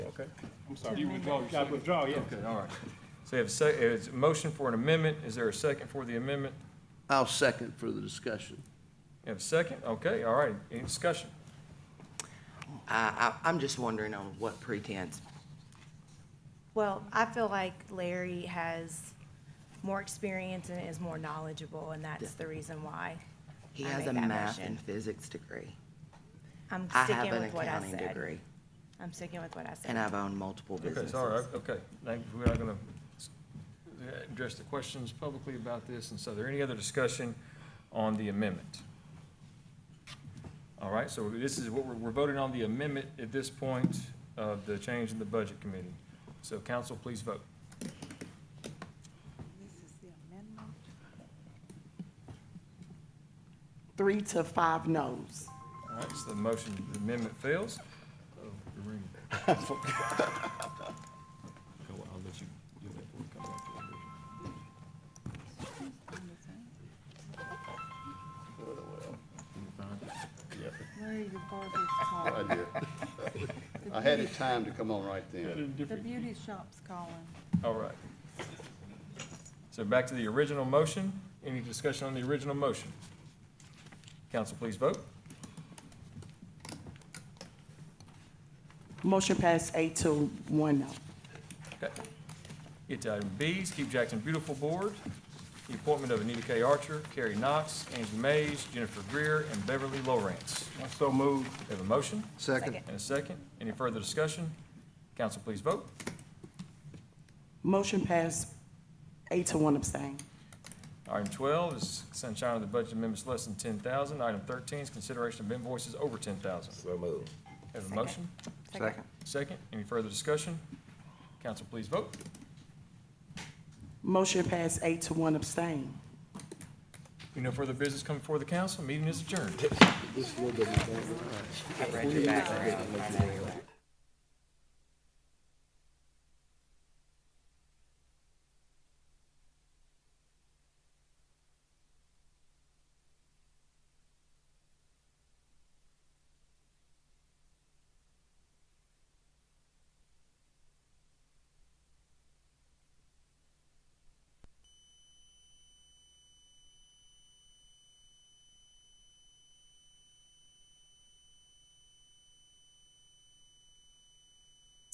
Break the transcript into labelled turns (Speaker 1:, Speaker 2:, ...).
Speaker 1: Okay,
Speaker 2: I'm sorry, you withdraw your
Speaker 1: got to
Speaker 2: second.
Speaker 1: withdraw, yeah.
Speaker 2: Okay, all right.
Speaker 3: So we have a sec, it's a motion for an amendment. Is there a second for the amendment?
Speaker 4: I'll second for the discussion.
Speaker 3: You have a second? Okay, all right. Any discussion?
Speaker 5: I, I, I'm just wondering on what pretense.
Speaker 6: Well, I feel like Larry has more experience and is more knowledgeable, and that's the reason why.
Speaker 5: He
Speaker 6: I
Speaker 5: has
Speaker 6: made
Speaker 5: a
Speaker 6: that
Speaker 5: math
Speaker 6: motion.
Speaker 5: and physics degree.
Speaker 6: I'm
Speaker 5: I
Speaker 6: sticking
Speaker 5: have an
Speaker 6: with what I
Speaker 5: accounting
Speaker 6: said.
Speaker 5: degree,
Speaker 6: I'm sticking with what I said.
Speaker 5: and I've owned multiple
Speaker 3: Okay, so all right,
Speaker 5: businesses.
Speaker 3: okay. Now, we're not gonna s- address the questions publicly about this, and so are there any other discussion on the amendment? All right, so this is what we're, we're voting on the amendment at this point of the change in the budget committee. So council, please vote.
Speaker 7: Three to five noes.
Speaker 3: All right, so the motion, the amendment fails. Oh, the ring. Go, I'll let you do that before we come back to the original.
Speaker 8: Larry, your barber's calling.
Speaker 9: I did. I had it timed to come on right
Speaker 2: Got
Speaker 9: then.
Speaker 2: a
Speaker 8: The
Speaker 2: different-
Speaker 8: beauty shop's calling.
Speaker 3: All right. So back to the original motion. Any discussion on the original motion? Council, please vote.
Speaker 7: Motion passed eight to one no.
Speaker 3: Okay. Get to item B's, Keep Jackson Beautiful Board, the appointment of Anita K. Archer, Carrie Knox, Angie Mays, Jennifer Greer, and Beverly Lawrence.
Speaker 2: I so moved.
Speaker 3: We have a motion
Speaker 4: Second.
Speaker 3: and a second. Any further discussion? Council, please vote.
Speaker 7: Motion passed eight to one abstain.
Speaker 3: Item twelve is sunshine of the budget amendments less than ten thousand. Item thirteen is consideration of invoices over ten thousand. So moved. Have a motion?
Speaker 7: Second.
Speaker 3: Second, any further discussion? Council, please vote.
Speaker 7: Motion passed eight to one abstain.
Speaker 3: We no further business coming before the council, meeting is adjourned.
Speaker 5: I read your background.